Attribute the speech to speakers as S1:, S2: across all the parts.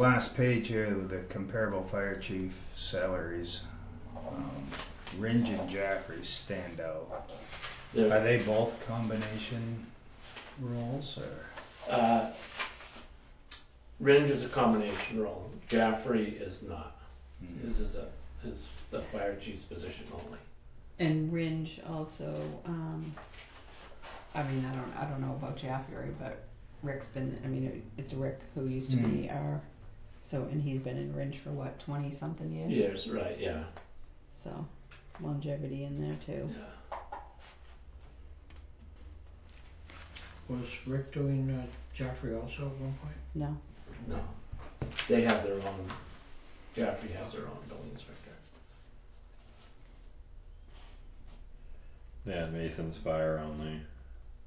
S1: Last page here with the comparable fire chief salaries. Um, Ringe and Jaffrey stand out.
S2: They're-
S1: Are they both combination roles or?
S2: Uh, Ringe is a combination role. Jaffrey is not. His is a is the fire chief's position only.
S3: And Ringe also, um, I mean, I don't, I don't know about Jaffrey, but Rick's been, I mean, it- it's Rick who used to be
S2: Mm-hmm.
S3: our, so, and he's been in Ringe for what, twenty something years?
S2: Yes, right. Yeah,
S3: So longevity in there
S2: yeah.
S3: too.
S4: Was Rick doing uh, Joffrey also at one point?
S3: No,
S2: No, they have their own. Jaffrey has their own building inspector.
S5: Yeah, Mason's fire only.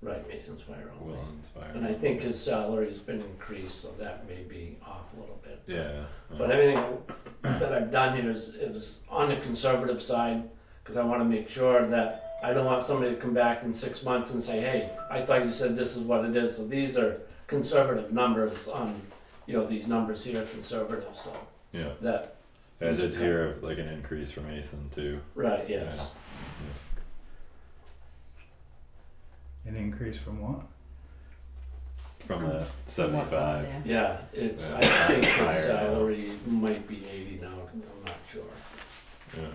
S2: Right, Mason's fire only.
S5: Willen's fire.
S2: And I think his salary's been increased, so that may be off a little bit.
S5: yeah. uh,
S2: But everything that I've done here is, is on the conservative side, because I want to make sure that I don't want somebody to come back in six months and say, hey, I thought you said this is what it is, so these are conservative numbers on, you know, these numbers here are conservative, so
S5: yeah.
S2: that,
S5: I did hear of like an increase for Mason too.
S2: right, yes.
S1: An increase from what?
S5: From a
S3: From
S5: seventy
S3: what's on
S5: five.
S3: there?
S2: Yeah, it's, I
S5: Yeah.
S2: think
S5: Higher now.
S2: his salary might be eighty now, I'm not sure.
S5: Yeah.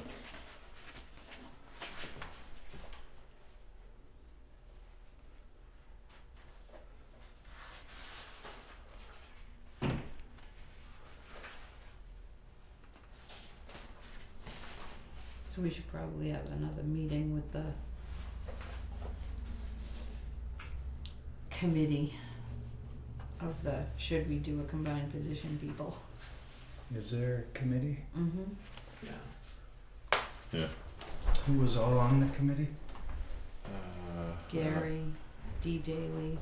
S3: So we should probably have another meeting with the committee of the should we do a combined position people.
S1: Is there a committee?
S3: Mm-hmm.
S2: Yeah,
S1: Who was all on the committee?
S5: Uh,
S3: Gary, D. Daly,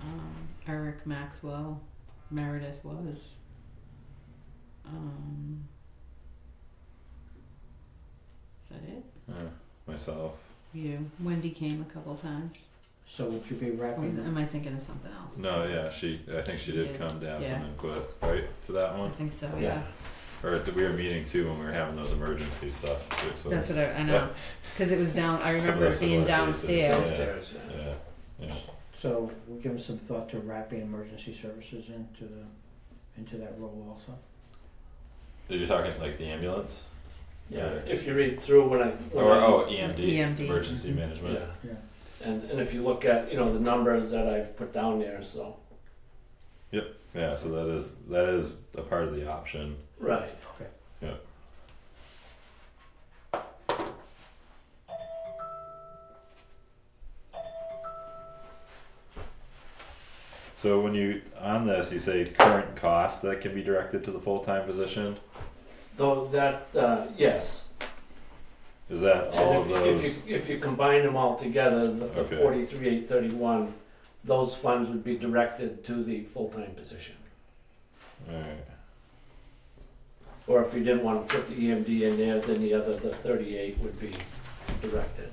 S3: um, Eric Maxwell, Meredith was. Um, is that it?
S5: yeah, uh, myself.
S3: You. Wendy came a couple times.
S4: So would you be
S3: Or
S4: wrapping?
S3: am I thinking of something else?
S5: No, yeah, she. I think she
S3: She
S5: did
S3: did,
S5: come down
S3: yeah.
S5: and quit right to that
S3: I
S5: one.
S3: think so,
S2: Yeah.
S3: Oh, yeah.
S5: Or th- we were meeting too when we were having those emergency stuff. Too, so
S3: That's what I, I know. Because it was down, I
S5: Some
S3: remember
S5: of
S3: it being
S5: those similar Yeah.
S3: downstairs.
S5: cases,
S2: Upstairs, yeah.
S5: yeah, yeah,
S4: So we give them some thought to wrapping emergency services into the into that role also.
S5: you're talking like the ambulance
S2: Yeah,
S5: Yeah.
S2: if you read through when I. when
S5: or
S2: I-
S5: oh EMD,
S3: EMD.
S5: emergency
S3: Mhm.
S5: management.
S2: Yeah.
S4: Yeah.
S2: And, and if you look at, you know, the numbers that I've put down there, so.
S5: Yeah, so that is that is a part of the option.
S2: Right.
S4: Okay.
S5: Yeah. So when you on this, you say current costs that can be directed to the full time position.
S2: Though that, uh, yes.
S5: Is that
S2: And
S5: all
S2: if
S5: of
S2: you-
S5: those?
S2: If you, if you combine them all together, the the
S5: Okay.
S2: forty-three, eight thirty-one, those funds would be directed to the full-time position.
S5: all right.
S2: Or if you didn't wanna put the EMD in there, then the other, the thirty-eight would be directed.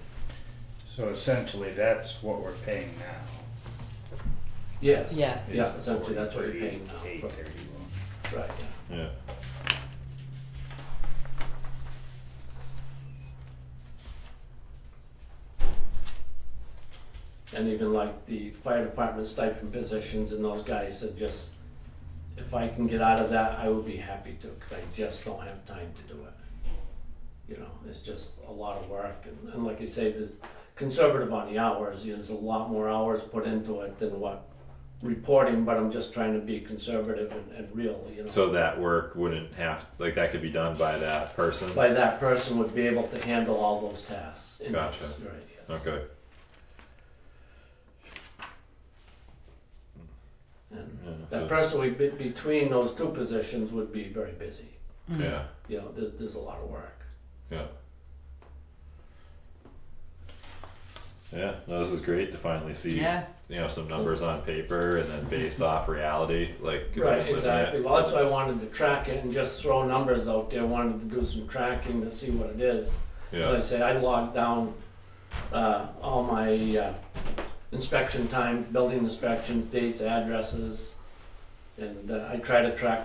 S1: So essentially, that's what we're paying now.
S2: Yes.
S3: Yeah.
S2: Yeah, essentially, that's what you're paying
S1: Eight
S2: now.
S1: thirty-one.
S2: Right, yeah.
S5: Yeah.
S2: And even like the fire department stipend positions and those guys said just, if I can get out of that, I would be happy to, cause I just don't have time to do it. You know, it's just a lot of work and, and like you say, this conservative on the hours, you know, there's a lot more hours put into it than what reporting, but I'm just trying to be conservative and, and real, you know.
S5: So that work wouldn't have like that could be done by that person.
S2: By that person would be able to handle all those tasks. in
S5: Gotcha.
S2: this, Right, yes.
S5: Okay.
S2: And
S5: Yeah.
S2: that
S5: so-
S2: person would be, between those two positions would be very busy.
S3: Mhm.
S5: yeah.
S2: you know, there's, there's a lot of work.
S5: Yeah. Yeah, no, this is great to finally see
S3: Mm. Yeah.
S5: you know some numbers on paper and then based off reality, like 'cause
S2: Right,
S5: I've been living
S2: exactly.
S5: it.
S2: Well, that's why I wanted to track it and just throw numbers out there. Wanted to do some tracking to see what it is. Like I
S5: Yeah,
S2: say, I logged down uh, all my uh, inspection times, building inspections, dates, addresses, And uh, I try to track